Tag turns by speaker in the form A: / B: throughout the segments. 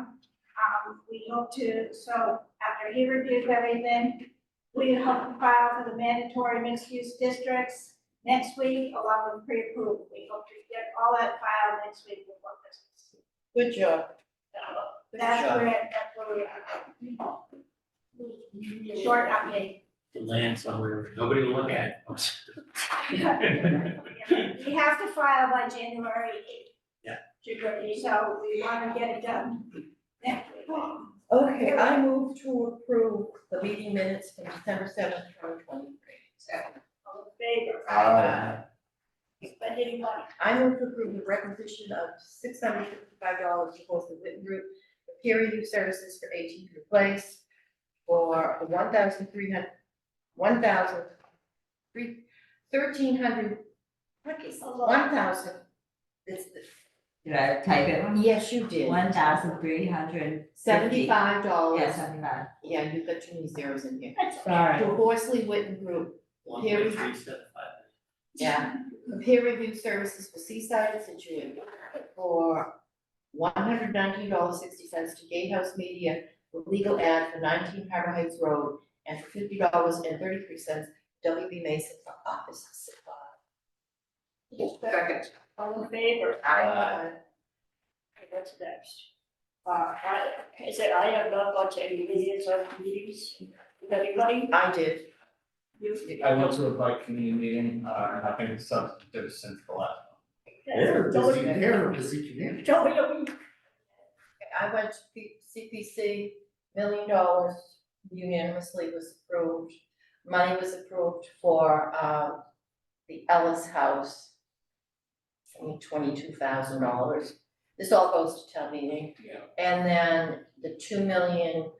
A: Um, we hope to, so after he reviews everything, we hope to file for the mandatory mixed-use districts next week along with pre-approval. We hope to get all that filed next week before Christmas.
B: Good job.
A: So
B: Good
A: That's
B: job.
A: where, that's where we are. Short update.
C: The land somewhere, nobody will look at it.
A: We have to file by January eighth.
C: Yeah.
A: So we wanna get it done next week.
B: Okay, I move to approve the meeting minutes from December seventh, twenty twenty-three.
A: All in favor?
B: Aye.
A: But anybody,
B: I move to approve the requisition of six hundred fifty-five dollars to both the Witten Group for peer review services for eighteen Cooper Place for one thousand three hundred, one thousand three, thirteen hundred, what is, one thousand? It's the,
D: Did I type it wrong?
B: yes, you did.
D: One thousand three hundred fifty.
B: Seventy-five
E: Oh,
B: dollars.
D: Yeah, seventy-five.
B: Yeah, you've got too many zeros in here.
D: Sorry.
B: The Horsley Witten Group,
C: One
B: Here we-
C: point three seven five.
B: yeah, peer review services for Seaside and Situate for one hundred nineteen dollars sixty cents to Gatehouse Media for legal ad for nineteen Harbor Heights Road and for fifty dollars and thirty-three cents WB Mason for office supply.
E: Second.
A: all in favor?
C: Aye.
F: Okay, What's next? Uh, I, I said I have not gone to any meetings or meetings, Did everybody,
B: I did,
F: you.
G: I went to a bike committee meeting, uh, and I think it's substantive since the last.
F: That's- Don't even,
C: there, busy community.
F: don't even,
B: I went to P- CPC, million dollars unanimously was approved. Money was approved for, uh, the Ellis House. Twenty-two thousand dollars. This all goes to town meeting.
C: Yeah.
B: And then the two million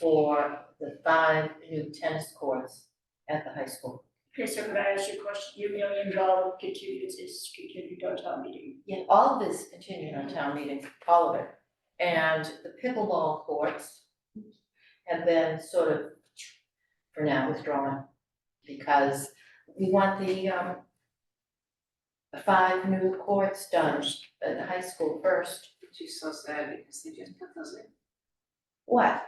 B: for the five new tennis courts at the high school.
F: okay, so can I ask you a question, your million dollar continues is continued on town meeting?
B: Yeah, all of this continued on town meeting, all of it. And the pickleball courts have been sort of for now withdrawn because we want the um the five new courts done at the high school first.
E: Which is so sad because they just put those in.
B: What?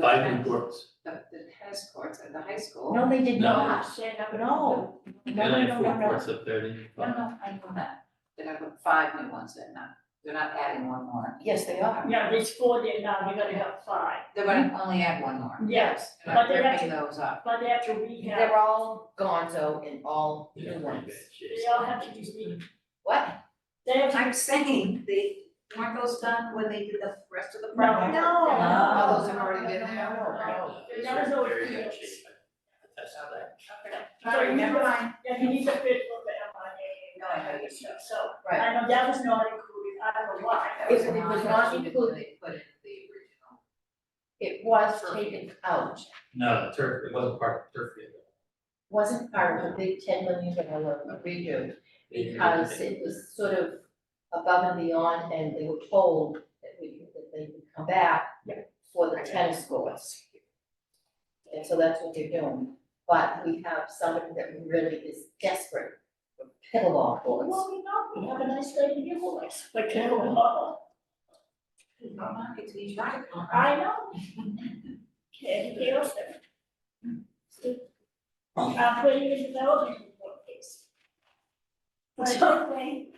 C: Five new courts.
E: The, the tennis courts at the high school.
B: No, they did
C: No.
B: not.
F: Say number.
B: No.
C: And
B: No, no,
C: I
B: no,
C: have four
B: no, no.
C: courts up there, didn't you?
E: No, no, I know that. They're gonna put five new ones in now. They're not adding one more.
B: Yes, they are.
F: Yeah, there's four there now, you're gonna have five,
E: They're gonna only add one more.
F: yes,
E: They're
F: but
E: not
F: they have
E: ripping
F: to,
E: those up.
F: but they have to
B: They're
F: rehab,
B: all gonzo and all
C: Yeah,
B: new
C: pretty
B: ones.
C: bad shape.
F: they all have to be,
B: What?
F: they have to.
E: I'm saying they, weren't those done when they did the rest of the
F: No.
E: project?
A: No.
E: All Oh, those have already been
B: No,
E: there.
B: Oh, no, no.
C: Yeah, it's
F: That was always
C: very bad
F: yes.
C: shape. That's how that.
F: So you
E: Never
F: need a-
E: mind.
F: Yeah, you need a fit for the MIA and all that stuff, so
B: Right.
F: I know that was not included, I don't know why.
E: That was
B: If it
E: an
B: was not
E: option that
B: included-
E: They put in the original.
B: It was taken out.
C: No, the turf, it wasn't part of the turf field.
B: wasn't part of the big ten million dollar redo because it was sort of above and beyond and they were told that we, that they would come back for the tennis courts. And so that's what they're doing, but we have somebody that really is desperate for pickleball courts.
F: Well, we know, we have a nice lady here for us, but can we all?
E: Not market to each other.
F: Uh-huh. I know. Okay, anything else there? I'm putting in development report, please.
A: But hopefully,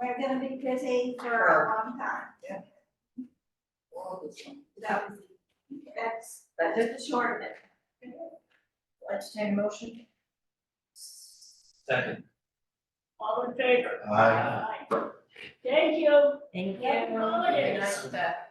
A: we're gonna be busy for a long time. So that's, that's the short of it.
B: Entertain a motion?
C: Second.
F: All in favor?
C: Aye.
F: Aye. Thank you.
D: Thank you.
F: Happy holidays.
E: Nice, uh,